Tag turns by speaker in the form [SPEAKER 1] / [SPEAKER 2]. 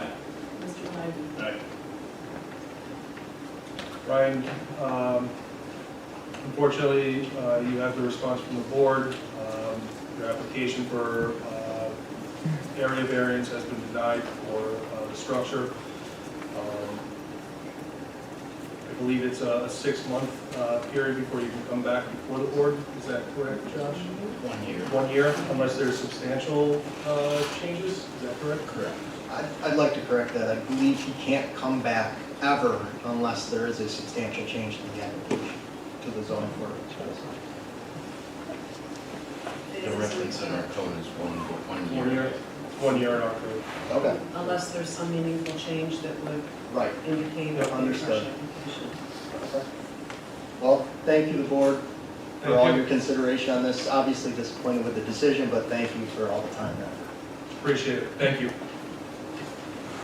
[SPEAKER 1] Brian, um, unfortunately, uh, you have the response from the board. Um, Your application for uh, area variance has been denied for uh, the structure. Um, I believe it's a a six-month uh, period before you can come back before the board. Is that correct, Josh?
[SPEAKER 2] One year.
[SPEAKER 1] One year, unless there's substantial uh, changes, is that correct?
[SPEAKER 2] Correct.
[SPEAKER 3] I'd, I'd like to correct that. I believe he can't come back ever unless there is a substantial change to the application, to the zoning ordinance.
[SPEAKER 4] It
[SPEAKER 2] The
[SPEAKER 4] is
[SPEAKER 2] reference in our
[SPEAKER 4] weekend,
[SPEAKER 2] code is one, one
[SPEAKER 1] One
[SPEAKER 2] year.
[SPEAKER 1] year, one year in our code.
[SPEAKER 3] Okay.
[SPEAKER 4] Unless there's some meaningful change that would
[SPEAKER 3] Right.
[SPEAKER 4] indicate a fresh
[SPEAKER 3] Understood.
[SPEAKER 4] application.
[SPEAKER 3] Well, thank you, the board, for all
[SPEAKER 1] Thank you.
[SPEAKER 3] your consideration on this. Obviously disappointed with the decision, but thank you for all the time and effort.
[SPEAKER 1] Appreciate it, thank you.